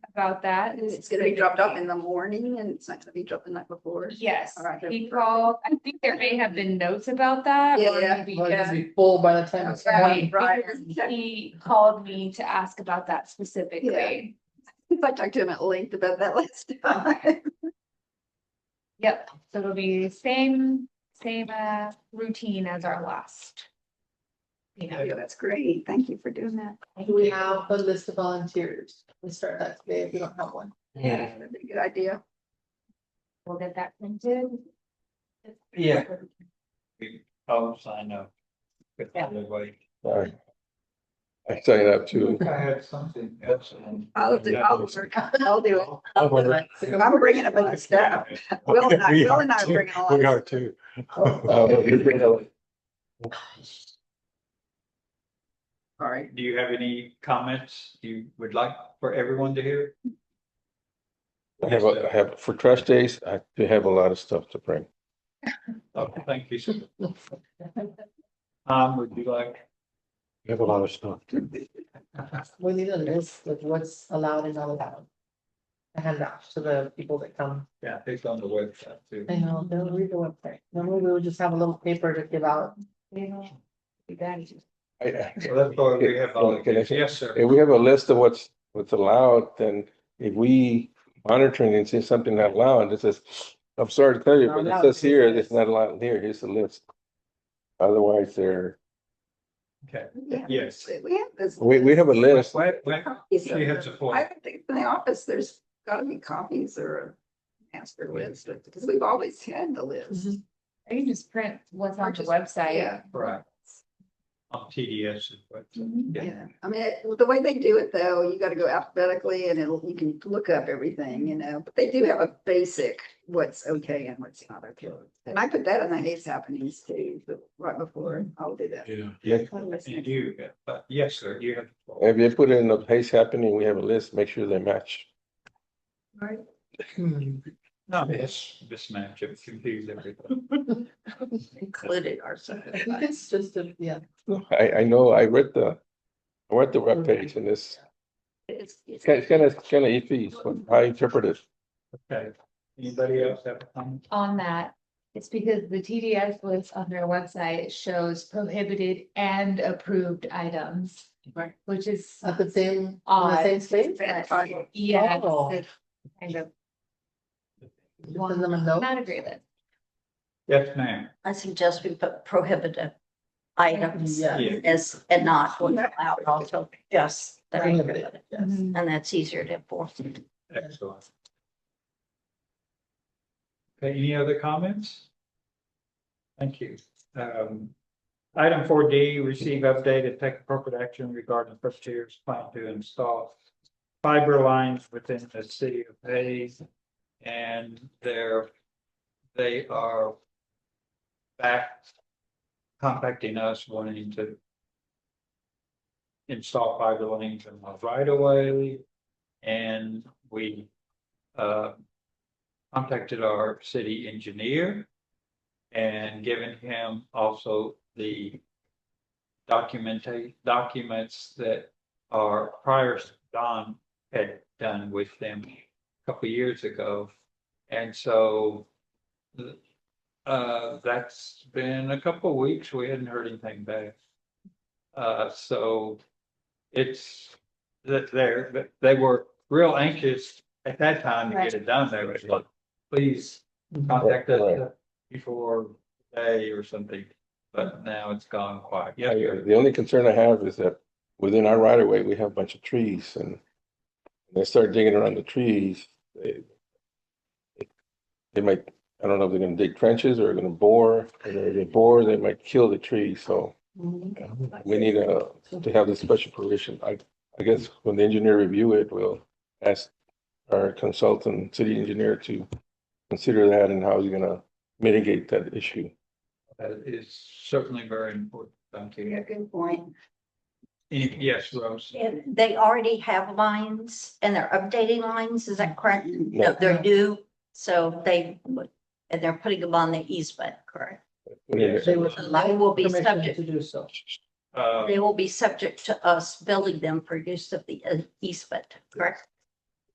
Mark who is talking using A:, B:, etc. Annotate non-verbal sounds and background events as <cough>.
A: about that.
B: It's gonna be dropped off in the morning and it's not gonna be dropped the night before.
A: Yes,
B: All right.
A: he called, I think there may have been notes about that. or
B: Yeah.
A: maybe
C: Well, it's
A: just-
C: gonna be full by the time it's
B: Right.
C: morning.
B: Brian.
A: because He called me to ask about that specifically.
B: If I talked to him at length about that <laughs> last time.
A: Yep, so it'll be same, same uh routine as our last. You know,
B: Yeah, That's great. Thank you for doing that.
C: Do we have a list of volunteers? We start that today if we don't have one.
D: Yeah,
B: That'd be a Good idea.
A: we'll get that printed.
D: yeah.
E: I'll sign up. With
A: Yeah.
E: everybody.
F: I I sign up too.
E: I had something else. and-
B: I'll do, I'll, I'll do it.
F: I'm gonna-
B: I'm bringing a bunch of stuff. Will and I,
F: <laughs> We
B: Will
F: are
B: and I are
F: too.
B: bringing a lot.
F: We
B: of
F: are too. uh,
D: Um,
E: All right, do you have any comments you would like for everyone to hear?
F: I have, a- I have, for trust days, I do have a lot of stuff to bring.
E: Oh, thank you. sir. Um, would you like?
F: I have a lot of stuff.
C: We need a list of what's allowed and not allowed. A handout to the people that come.
E: Yeah, it's on the website too.
C: I know, they'll read the website. Normally we would just have a little paper to give out.
A: You know, be bad.
F: I- I-
E: So that's why we have. all of
F: Can I
E: this.
F: say-
E: Yes, sir.
F: If we have a list of what's, what's allowed, then if we monitoring and see something not allowed, it says, I'm sorry to tell you, but it says here, it's not allowed here, here's the list. Otherwise, there,
E: Okay.
B: Yeah.
E: Yes.
B: We have this.
F: we, we have a list.
E: Wait, wait,
B: copies
E: She
B: of
E: has
B: them.
E: a point.
B: I would think in the office, there's gotta be copies or a master list, but- because we've always had the list.
A: I can just print what's
B: Or
A: on the
B: just-
A: website.
B: Yeah,
E: right. On TDS. is what-
A: Mhm.
E: Yeah.
B: yeah. I mean, it- the way they do it though, you gotta go alphabetically and it'll, you can look up everything, you know, but they do have a basic what's okay and what's not okay. And I put that in the haze happenings too, but right before, I'll do that.
F: Yeah.
E: You do, but yes, sir, you have. the floor.
F: If you put in the pace happening, we have a list, make sure they match.
B: Right.
E: No, this, this matchup confused everything.
B: Included ourselves.
C: I think it's just, a- yeah.
F: I, I know, I read the, I read the webpage and it's,
B: It's- it's-
F: it's kind of, kind of iffy, is what I interpret it.
E: Okay, anybody else have a comment?
A: On that, it's because the TDS list on their website shows prohibited and approved items.
B: Right.
A: Which is,
C: At the same, on the
A: Odd.
C: same space?
B: Bad title.
A: yeah,
C: Oh.
A: it's kind of
C: Send them a note.
A: not agree with.
E: Yes, ma'am.
G: I suggest we put prohibited items
C: Yeah.
E: Yeah.
G: as, and not what's allowed also, yes. that are
C: Prohibited,
G: prohibited.
C: yes.
A: Mm-hmm.
G: And that's easier to enforce.
E: Excellent. Okay, any other comments? Thank you. Um, item four D, receive update and take appropriate action regarding first year's plan to install fiber lines within the city of Hayes. And they're, they are back contacting us wanting to install fiber lines in the right of way. And we uh, contacted our city engineer and given him also the documentate, documents that our prior Don had done with them a couple years ago. And so uh, that's been a couple weeks. We hadn't heard anything back. Uh, so it's that they're, that they were real anxious at that time to get it done. They were like, please contact us uh, before today or something. But now it's gone quiet. Yeah,
F: I- The only concern I have is that within our right of way, we have a bunch of trees and they start digging around the trees. They they might, I don't know if they're gonna dig trenches or gonna bore, and if they bore, they might kill the trees, so we need a, to have this special permission. I, I guess when the engineer review it, we'll ask our consultant, city engineer to consider that and how he's gonna mitigate that issue.
E: that is certainly very important. Thank you.
B: Yeah, good point.
E: Any- Yes, Rose.
G: And they already have lines and they're updating lines, is that correct?
F: No.
G: No, they're new, so they, would- and they're putting them on the easement, correct?
E: Yes.
C: They would
G: They will be
C: permission
G: subject-
C: To do so.
E: Uh,
G: They will be subject to us building them for use of the uh, easement, correct?